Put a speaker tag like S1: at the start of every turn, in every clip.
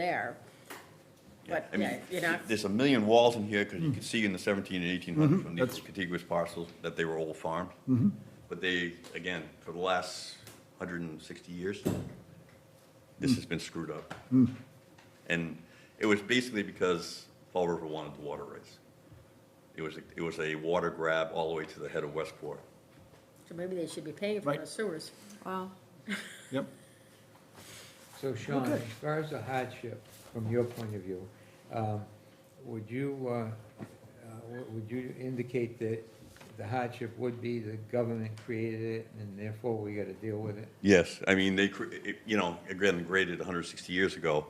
S1: there. But,
S2: I mean,
S1: yeah, you're not, Mm-hmm.
S2: There's a million walls in here, because you can see in the 17 and 1800s when these
S3: that's-
S2: were contiguous parcels, that they were all farmed.
S1: Mm-hmm.
S2: But they, again, for the last 160 years,
S1: Mm.
S2: this has been screwed up. And it was basically because Fall River wanted the water rights. It was, it was a water grab all the way to the head of Westport.
S1: so maybe they should be paying for
S3: Right.
S1: the sewers.
S4: Wow.
S3: Yep.
S5: So Sean,
S3: Okay.
S5: as far as the hardship, from your point of view, um, would you, uh, uh, w- would you indicate that the hardship would be the government created it and therefore we gotta deal with it?
S2: Yes, I mean, they, cre- it- you know, again, graded 160 years ago,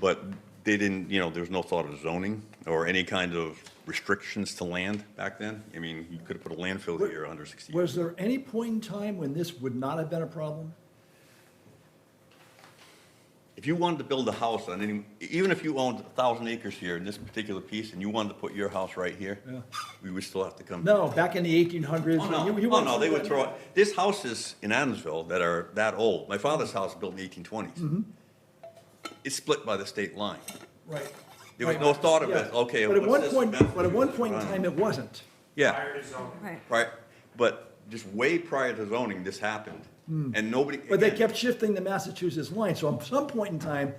S2: but they didn't, you know, there was no thought of zoning or any kind of restrictions to land back then. I mean, you could have put a landfill here 160 years.
S3: Was there any point in time when this would not have been a problem?
S2: If you wanted to build a house on any, even if you owned 1,000 acres here in this particular piece and you wanted to put your house right here,
S3: Yeah.
S2: we would still have to come.
S3: No, back in the eighteen hundreds.
S2: Oh, no, oh, no, they would throw, it. there's houses in Adamsville that are that old. My father's house was built in the
S3: Mm-hmm.
S2: 1820s. It's split by the state line.
S3: Right.
S2: There was no thought of it,
S3: Yeah.
S2: okay.
S3: But at
S2: what's
S3: one
S2: this
S3: point,
S2: method?
S3: but at one point in
S2: Right.
S3: time, it wasn't.
S2: Yeah,
S4: Right.
S2: right, but just way prior to zoning, this happened, and nobody.
S3: Hmm. But they
S2: again,
S3: kept shifting the Massachusetts line, so at some point in time,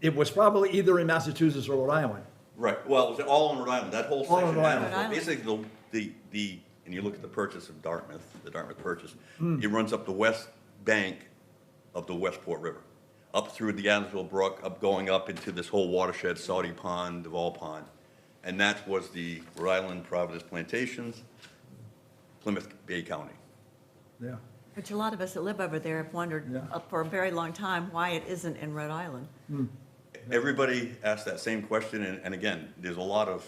S3: it was probably either in Massachusetts or Rhode Island.
S2: Right, well, it was all on Rhode Island, that whole
S3: All on
S2: section,
S3: Rhode Island.
S2: down.
S4: Rhode
S2: basically, the, the, the, and you look at the purchase of Dartmouth, the Dartmouth purchase,
S3: Hmm.
S2: it runs up the west bank of the Westport River, up through the Adamsville Brook, up, going up into this whole watershed, Saudi Pond, Duval Pond, and that was the Rhode Island Providence Plantations, Plymouth Bay County.
S3: Yeah.
S4: Which a lot of us that live over there have wondered
S3: Yeah.
S4: uh, for a very long time why it isn't in Rhode Island.
S2: Everybody asks that same question, and, and again, there's a lot of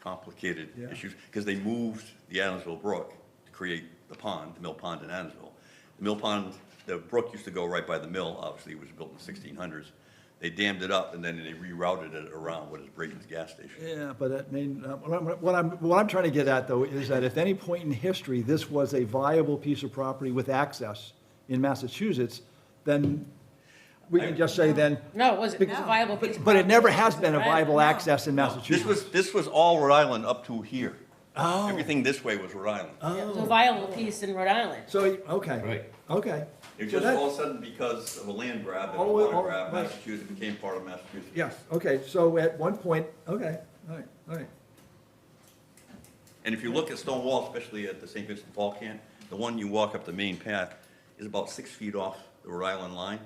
S2: complicated
S3: Yeah.
S2: issues, because they moved the Adamsville Brook to create the pond, the mill pond in Adamsville. The mill pond, the brook used to go right by the mill, obviously, it was built in the sixteen hundreds. They dammed it up, and then they rerouted it around what is Brayton's gas station.
S3: Yeah, but that mean, uh, what I'm- what I'm, what I'm trying to get at, though, is that if any point in history, this was a viable piece of property with access in Massachusetts, then we can just say then,
S1: No, it wasn't, it was a
S4: No.
S1: viable piece of
S3: but it never
S1: property.
S3: has been a viable access in
S2: This
S3: Massachusetts.
S2: was, this was all Rhode Island up to here. Oh. Everything this way was Rhode Island.
S3: Oh.
S1: It was a viable piece in Rhode Island.
S3: So, okay.
S5: Right.
S3: Okay.
S2: It was
S3: So
S2: just
S3: that-
S2: all of a sudden, because of a land grab and a
S3: All-
S2: water
S3: all-
S2: grab,
S3: right.
S2: Massachusetts became part of Massachusetts.
S3: Yes, okay, so at one point, okay, all right, all right.
S2: And if you look at Stonewall, especially at the St. Vincent Fall Camp, the one you walk up the main path is about six feet off the Rhode Island line.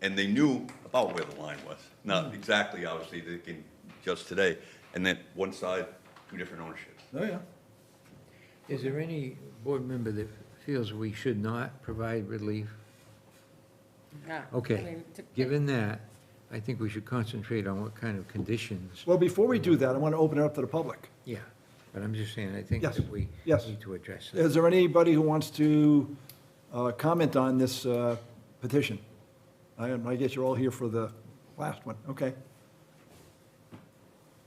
S2: And they knew about where the line was,
S3: Mm-hmm.
S2: not exactly, obviously, they can judge today. And then one side, two different ownerships.
S3: Oh, yeah.
S5: Is there any board member that feels we should not provide relief?
S1: Yeah. I
S5: Okay,
S1: mean, to-
S5: given that, I think we should concentrate on what kind of conditions,
S3: Well, before we do that, I want to open it up to the public.
S5: yeah. But I'm just saying, I think
S3: Yes,
S5: that we
S3: yes.
S5: need to address that.
S3: Is there anybody who wants to uh, comment on this uh, petition? I I guess you're all here for the last one, okay.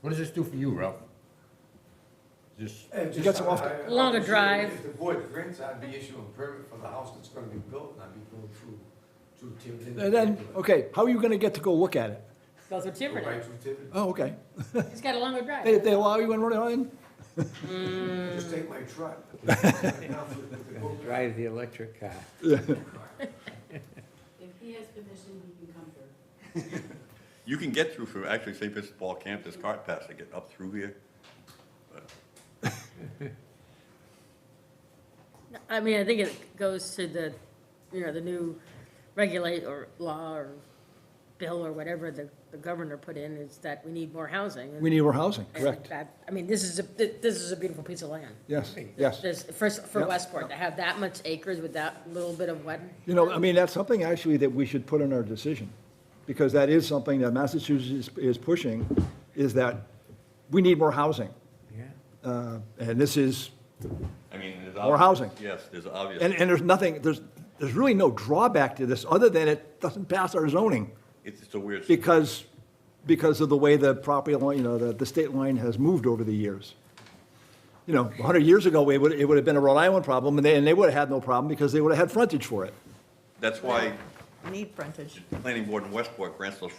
S6: What does this do for you, Ralph? Just,
S7: It
S3: You
S7: just-
S3: got some off-
S7: I- I-
S1: Longer
S7: obviously,
S1: drive.
S7: If the board grants, I'd be issuing a permit for the house that's gonna be built, and I'd be going through, through Tiverton.
S3: And then, okay, how are you going to get to go look at it?
S1: Go through
S7: Go right
S1: Tiverton.
S7: through Tiverton.
S3: Oh, okay.
S1: He's got a longer
S3: They
S1: drive.
S3: they allow you in Rhode Island?
S7: Just take my truck. Now for the- the boat.
S5: Drive the electric car.
S8: If he has permission, he can come through.
S2: You can get through from, actually, St. Vincent Fall Camp, this cart path, to get up through here.
S1: I mean, I think it goes to the, you know, the new regulate or law or bill or whatever the, the governor put in is that we need more housing. and-
S3: We need more housing,
S1: and
S3: correct?
S1: that- I mean, this is a, thi- this is a beautiful piece of land.
S3: Yes, yes.
S1: There's, first, for
S3: Yep.
S1: Westport, to have that much acres with that little bit of wet,
S3: You know, I mean, that's something actually that we should put in our decision, because that is something that Massachusetts is- is pushing, is that we need more housing.
S5: Yeah.
S3: Uh, And this is,
S2: I mean, there's.
S3: More
S2: obvious-
S3: housing.
S2: Yes, there's obvious.
S3: and, and there's nothing, there's, there's really no drawback to this, other than it doesn't pass our zoning,
S2: It's just a weird.
S3: because, because of the way the property line, you know, the, the state line has moved over the years. You know, 100 years ago, it would, it would have been a Rhode Island problem, and they, and they would have had no problem, because they would have had frontage for it.
S2: That's why
S4: need frontage.
S2: planning board in Westport grants those